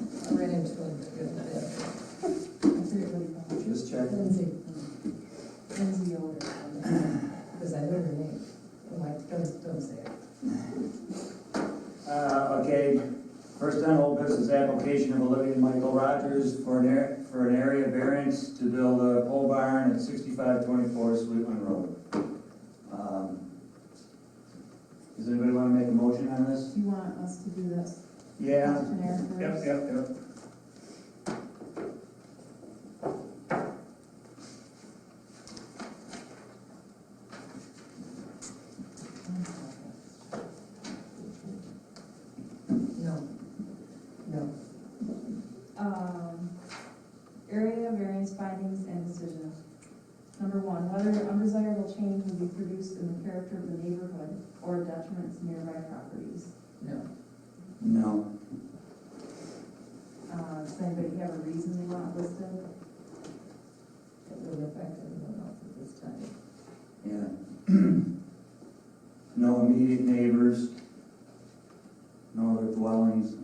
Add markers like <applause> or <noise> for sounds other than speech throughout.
name's going to go there. I forget what he called you. Just checking. Lindsay. Lindsay Yoder, because I know her name. I'm like, don't, don't say it. Uh, okay, first on old business, application of Olivia and Michael Rogers for an air, for an area variance to build a pole barn at sixty-five twenty-four Sweetland Road. Um, Does anybody wanna make a motion on this? You want us to do this Yeah? questionnaire Yep, first? yep, yep. No. No. Um, area variance findings and decision. Number one, whether undesirable change will be produced in the character of the neighborhood or detriment to nearby properties. No. No, Uh, does anybody have a reason they want listed? It would affect everyone else at this time. yeah. No immediate neighbors. No other dwellings.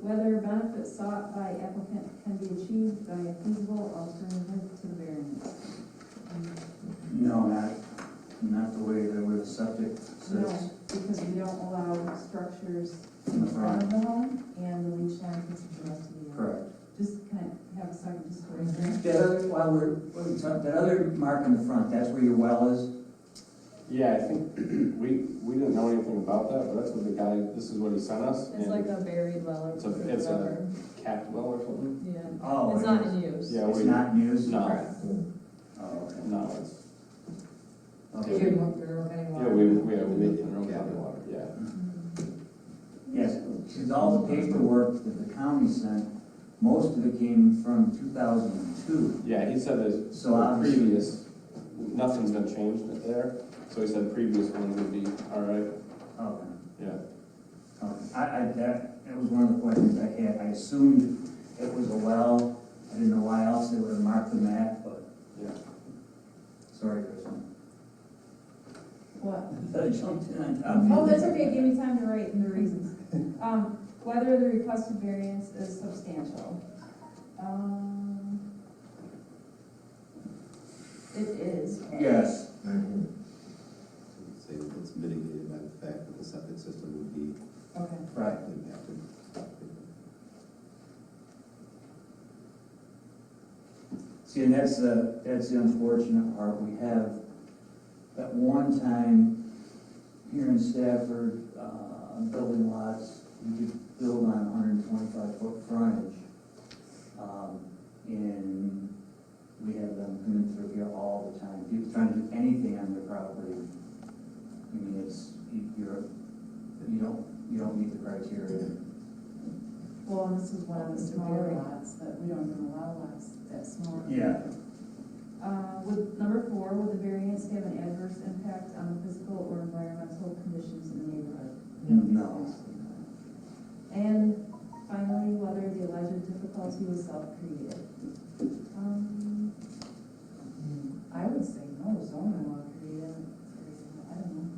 Whether benefits sought by applicant can be achieved by a feasible alternative to the variance. Um, No, not, not the way that where the septic No, sits because we don't allow structures in the in front front. of the home and the leach line is supposed to be. in. Correct. Just kind of have a second disclosure. That other, while we're, while we talk- that other mark in the front, that's where your well is? Yeah, I think <clears throat> we, we didn't know anything about that, but that's what the guy, this is what he sent us. It's like a buried well or It's a- it's a- whatever. Cat well or something? Yeah, Oh, it's it not is. in use. Yeah, It's we, not used? no, Oh, okay. no, it's, You Okay. didn't want to know yeah, anyone. we, we have a leak in our county water, yeah. Yes, because all the paperwork that the county sent, most of it came from two thousand and two. Yeah, he said that So uh, the obviously- previous, nothing's been changed there, so he said previous ones would be all right, Oh, Okay. yeah. Okay. I, I, that, that was one of the questions I had. I assumed it was a well. I didn't know why else they would have marked the map, but. Yeah. Sorry, Kristen. <laughs> What? I jumped in on top of Um, you. Oh, that's okay, give me time to write the reasons. Um, whether the requested variance is substantial. Um, It is. Yes. Say that it's mitigated by the fact that the septic system would be Okay. Right. impacted. See, and that's the, that's the unfortunate part. We have, at one time, here in Stafford, uh, building lots, you could build on hundred and twenty-five foot frontage. Um, and we have them coming through here all the time. People trying to do anything on their property. I mean, it's, you- you're, you don't, you don't meet the criteria. Well, and this is one of the smaller lots, that we don't even allow lots that small. Uh, would, number four, would the variance have an adverse impact on the physical or environmental conditions in the neighborhood? No. And finally, whether the alleged difficulty was self-created. Um, I would say no, zoning law created, it. I don't know.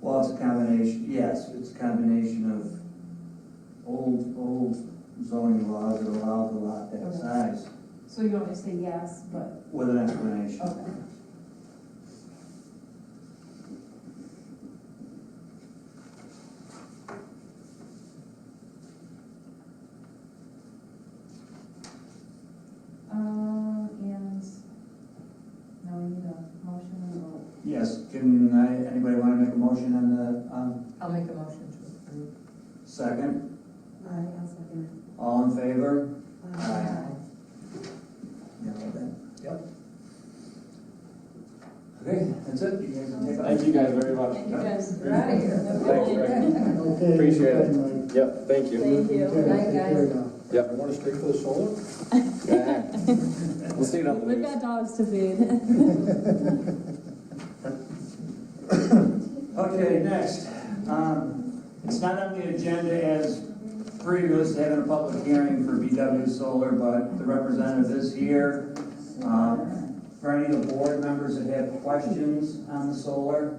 Well, it's a combination, yes, it's a combination of old, old zoning laws that allow the lot that size So you want me to say yes, but, with an explanation. okay. Uh, Um, and now we need a motion and a vote. Yes, can I, anybody want to make a motion on the, on I'll make a motion to approve. second? Aye, I'll second All in favor? it. Aye. Yeah, well then. Yep. Okay, that's it, you guys can take off. Thank you guys very much. Thank you guys. We're out of here. Thanks, Rick. <laughs> Okay. Appreciate it. okay, Mike. Yep, thank Thank you. Okay, Bye, take guys. care now. Yep. Want to straight for the solar? <laughs> We'll see you on the We've news. got dogs to feed. <laughs> Okay, next, um, it's not on the agenda as previous, having a public hearing for BW Solar, but the representative is here. Um, For any of the board members that have questions on the solar,